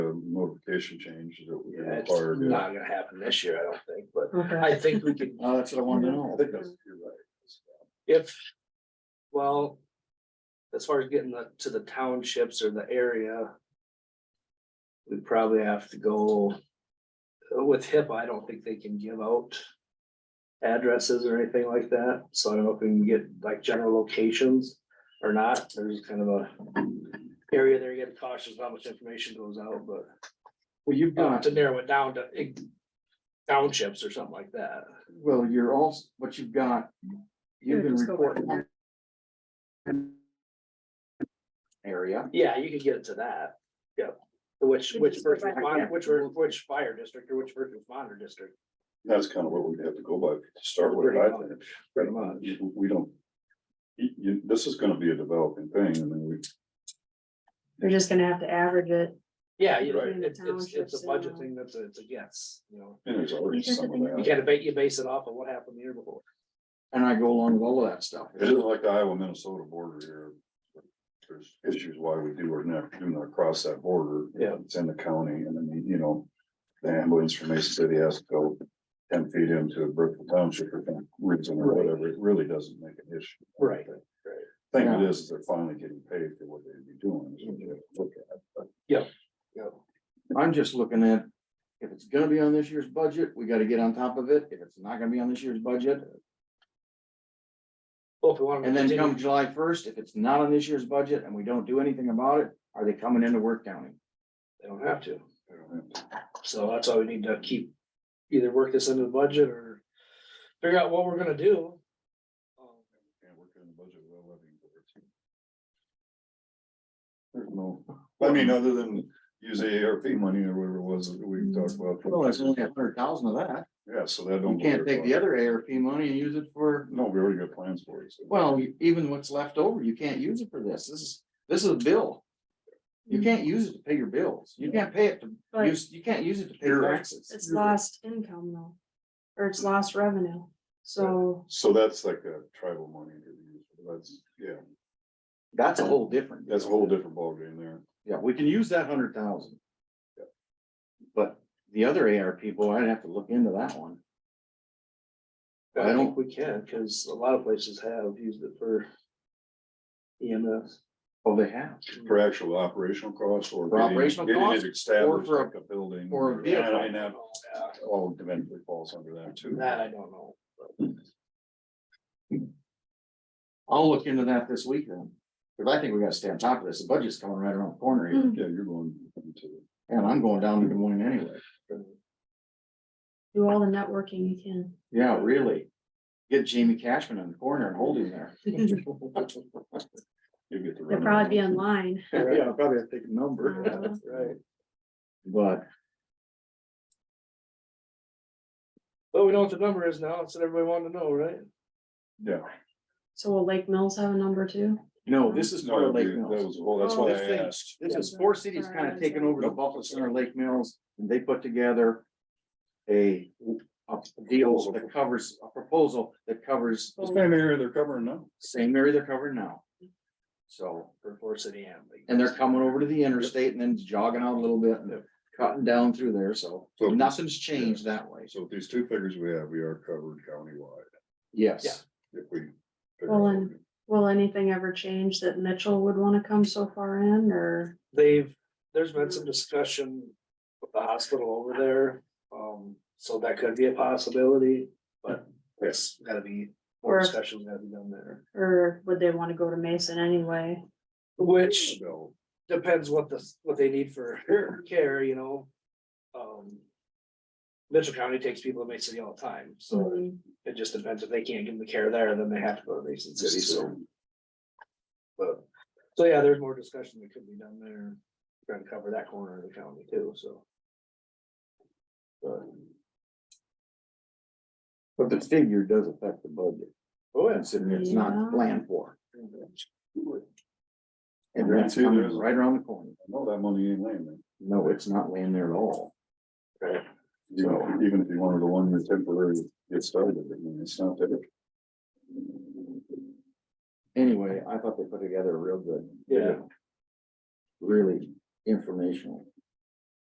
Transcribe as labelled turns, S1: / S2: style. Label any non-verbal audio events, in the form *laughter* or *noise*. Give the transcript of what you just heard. S1: notification change that we
S2: Yeah, it's
S1: required.
S2: not gonna happen this year, I don't think, but
S3: Okay.
S2: I think we could,
S1: Uh, that's what I wanted to know.
S2: I think that's- if, well. As far as getting the- to the townships or the area. We probably have to go. uh, With HIPAA, I don't think they can give out. Addresses or anything like that, so I don't know if we can get like general locations or not, there's kind of a. Area there, you gotta cautious how much information goes out, but.
S1: Well, you've
S2: Uh,
S1: got,
S2: to narrow it down to eh, townships or something like that.
S1: well, you're also, what you've got, you've been
S3: just go back.
S1: reporting. Area.
S2: Yeah, you could get it to that. Yep. Which, which
S3: just go
S2: first
S3: back,
S2: responder,
S3: yeah.
S2: which, were- which fire district or which first responder district.
S1: That's kind of what we'd have to go by to start with,
S2: Pretty
S1: I
S2: much,
S1: think.
S2: Pretty much.
S1: You- We don't. You, you- this is gonna be a developing thing, and then we,
S3: You're just gonna have to average it.
S2: Yeah, you know,
S1: Right.
S2: it's, it's, it's a
S3: Townships
S2: budget
S3: and-
S2: thing that's, a- it's a guess, you know.
S1: and there's already
S3: These are the
S1: some of
S3: things-
S1: that.
S2: You can't debate, you base it off of what happened the year before.
S4: And I go along with all of that stuff.
S1: It isn't like the Iowa Minnesota border here. There's issues why we do or not, do not cross that border.
S2: Yeah.
S1: It's in the county and then, you know, the ambulance from Mason City has to go ten feet into Brookville Township or some reason or whatever. It really doesn't make an issue.
S2: Right.
S1: Thing it is, is they're finally getting paid for what they'd be doing. is what you have to look at.
S2: Yep.
S4: I'm just looking at, if it's gonna be on this year's budget, we gotta get on top of it. If it's not gonna be on this year's budget,
S2: Well, if we want.
S4: and then come July first, if it's not on this year's budget and we don't do anything about it, are they coming into work county?
S2: They don't have to.
S1: They don't have to-
S2: So that's why we need to keep, either work this into the budget or figure out what we're gonna do. Um,
S1: Can't work in the budget without levying boards. There's no, I mean, other than use ARP money or whatever it was that we talked about.
S4: Well, there's only a hundred thousand of that.
S1: Yeah, so that
S4: You
S1: don't.
S4: can't take the other ARP money and use it for,
S1: No, we already got plans for it. so-
S4: well, you- even what's left over, you can't use it for this. This is, this is a bill. You can't use it to pay your bills. You can't pay it to,
S3: But
S4: use. you can't use it to pay
S1: You're
S4: your
S1: right.
S4: taxes.
S3: it's lost income though, or it's lost revenue. So
S1: So that's like a tribal money. that we use. That's, yeah,
S4: That's a whole different.
S1: that's a whole different ballgame there.
S4: Yeah, we can use that hundred thousand.
S1: Yeah.
S4: But the other AR people, I'd have to look into that one.
S2: I
S4: I
S2: don't think
S4: don't-
S2: we can, because a lot of places have used it for E EMS.
S4: Oh, they have.
S1: For actual operational costs or.
S4: For
S1: getting-
S4: operational
S1: getting it
S4: costs or
S1: Established
S4: for a-
S1: like a building.
S4: or a
S1: I
S4: vehicle.
S1: mean, that All eventually falls under that too.
S2: That I don't
S4: *laughs*
S2: know.
S4: I'll look into that this week then. Cause I think we gotta stay on top of this. The budget's coming right around the corner here,
S3: Mm.
S1: Yeah, you're going into.
S4: and I'm going down to Des Moines anyway.
S3: do all the networking you can.
S4: Yeah, really. Get Jamie Cashman in the corner and hold him there.
S1: You'll get the.
S3: They'll
S1: runaround.
S3: probably be
S4: *laughs*
S3: online.
S4: Yeah, I'll probably have to take a
S3: Uh-huh.
S4: number,
S2: Right,
S4: but
S2: but we know what the number is now, so everybody wanted to know, right?
S1: Yeah.
S3: So will Lake Mills have a number too?
S4: no, this is part
S1: No,
S4: of Lake
S1: that was,
S4: Mills.
S1: well, that's why
S4: This
S1: Oh, I
S4: thing-
S1: asked.
S4: This is four cities kind of taking over the Buffalo Center Lake Mills, and they put together. A, a deal that covers, a proposal that covers
S1: It's
S4: the
S1: kind of area they're covering now.
S4: same area they're covering now. So,
S2: For Four City Ambulance.
S4: and they're coming over to the interstate and then jogging out a little bit and cutting down through there, so
S1: So-
S4: nothing's changed that way,
S1: So with these two figures we have, we are covered countywide.
S4: yes.
S1: If we. figure
S3: Well,
S1: out-
S3: and- Will anything ever change that Mitchell would wanna come so far in or?
S2: They've, there's been some discussion with the hospital over there, um, so that could be a possibility, but it's gotta be, more
S3: Or-
S2: discussions gotta be done there.
S3: Or would they wanna go to Mason anyway?
S2: Which
S1: Bill,
S2: depends what the, what they need for *laughs* care, you know? Um. Mitchell County takes people to Mason City all the time, so
S3: Mm,
S2: it just depends if they can't give them the care there, then they have to go to Mason City, so. But, so yeah, there's more discussion that could be done there, trying to cover that corner of the county too, so. But,
S4: But the figure does affect the budget,
S2: oh yeah,
S4: considering it's
S3: Yeah.
S4: not planned for. And
S1: Yeah,
S4: that's
S1: see,
S4: coming
S1: there's-
S4: right around the corner,
S1: No, that money ain't laying there.
S4: no, it's not laying there at all.
S2: right,
S1: You know, even if you wanted to one year temporary, get started, I mean, it's not that.
S4: Anyway, I thought they put together a real good.
S2: yeah,
S4: Really informational.